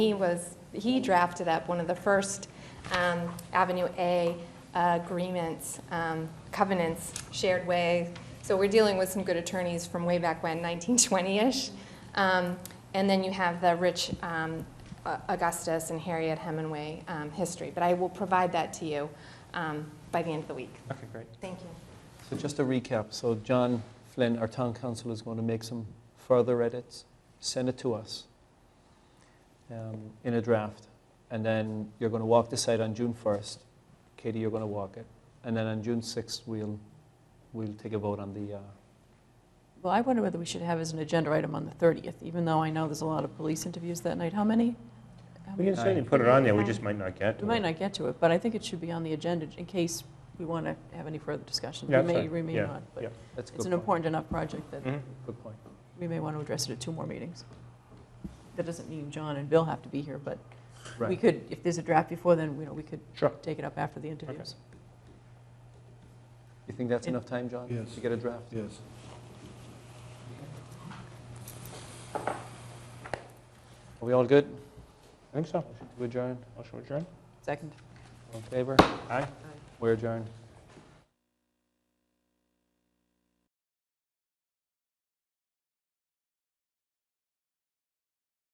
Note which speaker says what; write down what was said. Speaker 1: He was, he drafted up one of the first um, Avenue A uh, agreements, um, covenants, shared way. So we're dealing with some good attorneys from way back when, 1920-ish. Um, And then you have the Rich um, uh, Augustus and Harriet Hemingway um, history. But I will provide that to you um, by the end of the week.
Speaker 2: Okay, great.
Speaker 1: Thank you.
Speaker 2: So just to recap, so John Flynn, our town council, is going to make some further edits, send it to us um, in a draft, and then you're going to walk the site on June 1st. Katie, you're going to walk it. And then on June 6th, we'll, we'll take a vote on the, uh,
Speaker 3: Well, I wonder whether we should have as an agenda item on the 30th, even though I know there's a lot of police interviews that night. How many? How
Speaker 4: We
Speaker 3: many?
Speaker 4: can certainly put it on there, we just might not get to it.
Speaker 3: We might not get to it, but I think it should be on the agenda in case we want to have any further discussion.
Speaker 4: Yeah,
Speaker 3: We may,
Speaker 4: sorry.
Speaker 3: we may
Speaker 4: Yeah,
Speaker 3: not,
Speaker 4: yeah.
Speaker 3: but
Speaker 2: that's a good point.
Speaker 3: it's an important enough project that
Speaker 4: Mhm.
Speaker 2: Good point.
Speaker 3: we may want to address it at two more meetings. That doesn't mean John and Bill have to be here, but we
Speaker 2: Right.
Speaker 3: could, if there's a draft before, then, you know, we could
Speaker 4: Sure.
Speaker 3: take it up after the interviews.
Speaker 2: You think that's enough time, John?
Speaker 5: Yes.
Speaker 2: To get a draft?
Speaker 5: Yes.
Speaker 2: Are we all good?
Speaker 4: I think so.
Speaker 2: Motion to adjourn?
Speaker 3: Oh,
Speaker 4: Motion adjourned?
Speaker 3: Second.
Speaker 2: All in favor?
Speaker 4: Aye.
Speaker 2: We're adjourned.